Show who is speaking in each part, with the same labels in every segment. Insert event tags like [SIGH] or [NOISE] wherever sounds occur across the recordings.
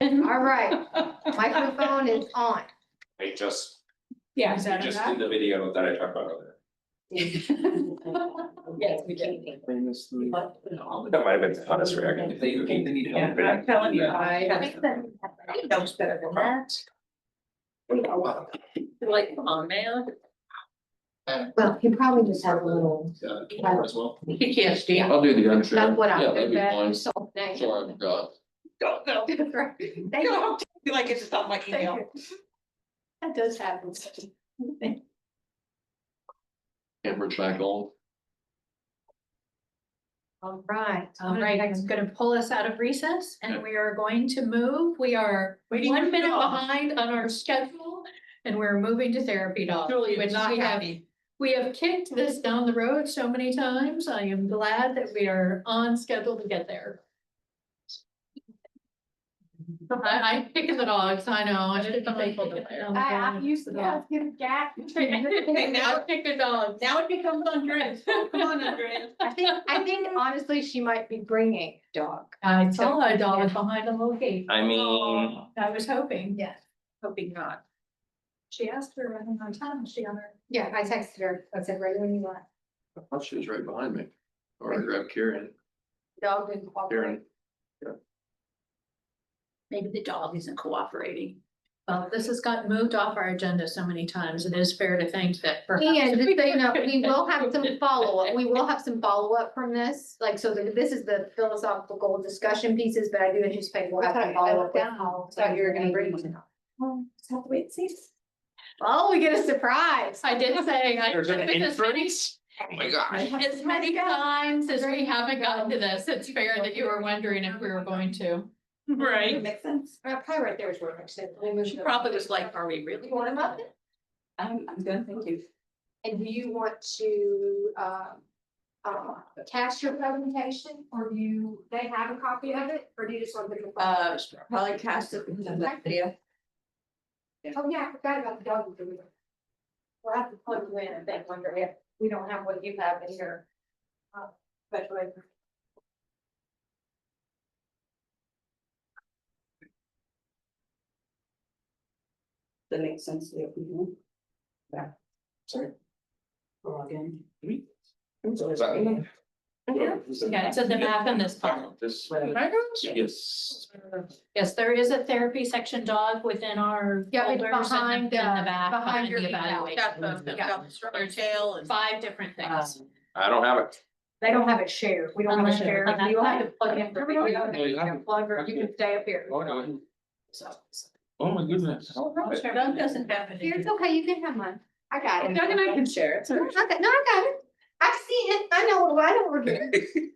Speaker 1: All right, [LAUGHS] microphone is on.
Speaker 2: I just,
Speaker 3: Yeah.
Speaker 2: you just did the video that I talked about earlier.
Speaker 3: [LAUGHS] Yes, we did.
Speaker 2: That might have been the honest reaction. If they think they need
Speaker 3: Yeah,
Speaker 2: help.
Speaker 3: I'm telling you, I.
Speaker 1: You know better than that.
Speaker 3: Like, come on, man.
Speaker 1: Well, he probably just had a little,
Speaker 4: Yeah, as well.
Speaker 3: PTSD.
Speaker 4: I'll do the unfair.
Speaker 1: that's what
Speaker 4: Yeah,
Speaker 1: I'm
Speaker 4: that'd
Speaker 1: good
Speaker 4: be
Speaker 1: at,
Speaker 4: fine.
Speaker 1: so. nice.
Speaker 4: Sure, I've got.
Speaker 3: Don't know.
Speaker 1: Right. [LAUGHS] Thank you.
Speaker 3: Don't feel like it's just on my
Speaker 1: Thank
Speaker 3: email.
Speaker 1: you. That does happen.
Speaker 4: Camera back on.
Speaker 1: All right.
Speaker 5: All right, it's gonna pull us out of recess and we are going to move. We are
Speaker 3: Waiting for
Speaker 5: one minute
Speaker 3: dog.
Speaker 5: behind on our schedule. And we're moving to therapy dog,
Speaker 3: Julie
Speaker 5: which
Speaker 3: is Uh, not
Speaker 5: we have,
Speaker 3: happy.
Speaker 5: we have kicked this down the road so many times. I am glad that we are on schedule to get there. I, I'm picking the dogs, I know. I should probably pick it down the
Speaker 1: I, I'm
Speaker 5: dogs,
Speaker 1: used
Speaker 5: the
Speaker 1: to that,
Speaker 5: dogs.
Speaker 1: give [LAUGHS] gas.
Speaker 5: Okay, now pick the dogs.
Speaker 3: Now it becomes
Speaker 5: [LAUGHS]
Speaker 3: Andrea. Come on, Andrea.
Speaker 1: I think, I think honestly, she might be bringing dog.
Speaker 5: I saw a dog behind a little gate.
Speaker 2: I mean,
Speaker 5: I was hoping,
Speaker 1: Yeah.
Speaker 3: Hoping not.
Speaker 5: she asked her running on time, she on her.
Speaker 1: Yeah, I texted her, I said, right when you want,
Speaker 4: I thought she was Oh, right behind me. Or I grabbed Karen,
Speaker 1: dog didn't cooperate.
Speaker 4: Karen.
Speaker 3: Maybe the dog isn't cooperating.
Speaker 5: Well, this has gotten moved off our agenda so many times, it is fair to think that. perhaps- [LAUGHS]
Speaker 1: And just so you know,
Speaker 3: [LAUGHS]
Speaker 1: we will have [LAUGHS] some follow-up, we will have some follow-up from this, like, so the- this is the philosophical discussion pieces, but I do anticipate we'll have some follow-up. with- Thought you were gonna bring one.
Speaker 3: Just have to wait and see.
Speaker 1: Oh, we get a surprise.
Speaker 5: I did say, I.
Speaker 2: There's an
Speaker 5: I've been as many-
Speaker 2: oh my gosh.
Speaker 5: As many times as we haven't gotten to this, it's fair that you were wondering if we were going to.
Speaker 1: Mm-hmm.
Speaker 3: Right. Makes sense.
Speaker 1: Uh, Probably right there is where I said.
Speaker 3: She probably was like, are we really?
Speaker 1: You want them up?
Speaker 3: I'm, I'm good, thank you.
Speaker 1: And do you want to, uh, uh, cast your presentation, or do you, they have a copy of it, or do you just want them to?
Speaker 3: Uh, probably cast it with that video.
Speaker 1: Oh, yeah, I forgot about the dog. food. We'll have to plug you in and then wonder if we don't have what you have in your. uh, special ed.
Speaker 6: That makes sense to
Speaker 3: Mm-hmm.
Speaker 6: you. Yeah. Sorry. Log in.
Speaker 2: Is that- Oh,
Speaker 5: Yeah, so the map in this part.
Speaker 4: This. Yes.
Speaker 5: Yes, there is a therapy section dog within our.
Speaker 1: Yeah, it's
Speaker 5: folders and
Speaker 1: behind,
Speaker 5: in
Speaker 1: uh,
Speaker 5: the back,
Speaker 1: behind
Speaker 5: behind
Speaker 1: your
Speaker 5: the
Speaker 1: email.
Speaker 5: evaluation.
Speaker 3: Got the, got the strawberry tail and.
Speaker 5: Five different
Speaker 3: Um,
Speaker 5: things.
Speaker 2: I don't have it.
Speaker 1: They don't have it shared, we don't have it
Speaker 5: Unless-
Speaker 1: shared,
Speaker 5: unless-
Speaker 1: you have to plug in. for video.
Speaker 4: No, you have to-
Speaker 1: Plug or you can stay up here.
Speaker 4: Oh, no.
Speaker 1: So.
Speaker 4: Oh, my goodness.
Speaker 3: That doesn't happen.
Speaker 1: It's okay, you can have mine, I got it.
Speaker 3: Doug and I can share it.
Speaker 1: No, I got no, I got it, I've seen it, I know, what- I know what we're doing,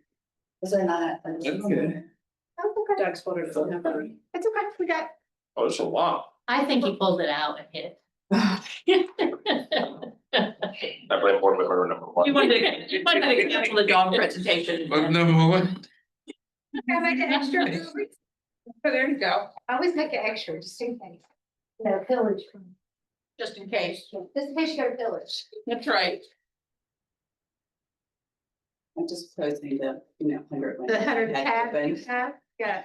Speaker 6: Was I not? I was-
Speaker 4: Okay.
Speaker 1: that's okay,
Speaker 6: Doug's folder doesn't have that.
Speaker 1: it's okay, we got.
Speaker 2: Oh, it's a lot.
Speaker 5: I think he pulled it out and hit it.
Speaker 2: I blame board member number one.
Speaker 3: You
Speaker 5: [LAUGHS]
Speaker 3: wanted to, you wanted to cancel the dog presentation.
Speaker 4: number one.
Speaker 1: I make an extra. [LAUGHS] I
Speaker 3: There you go.
Speaker 1: always make an extra, just in case. No pillage.
Speaker 3: Just in case.
Speaker 1: Just in case you go pillage.
Speaker 3: That's right.
Speaker 6: I'm just posing the, you know, hundred.
Speaker 1: The hundred tab you
Speaker 6: Open.
Speaker 1: have, yeah.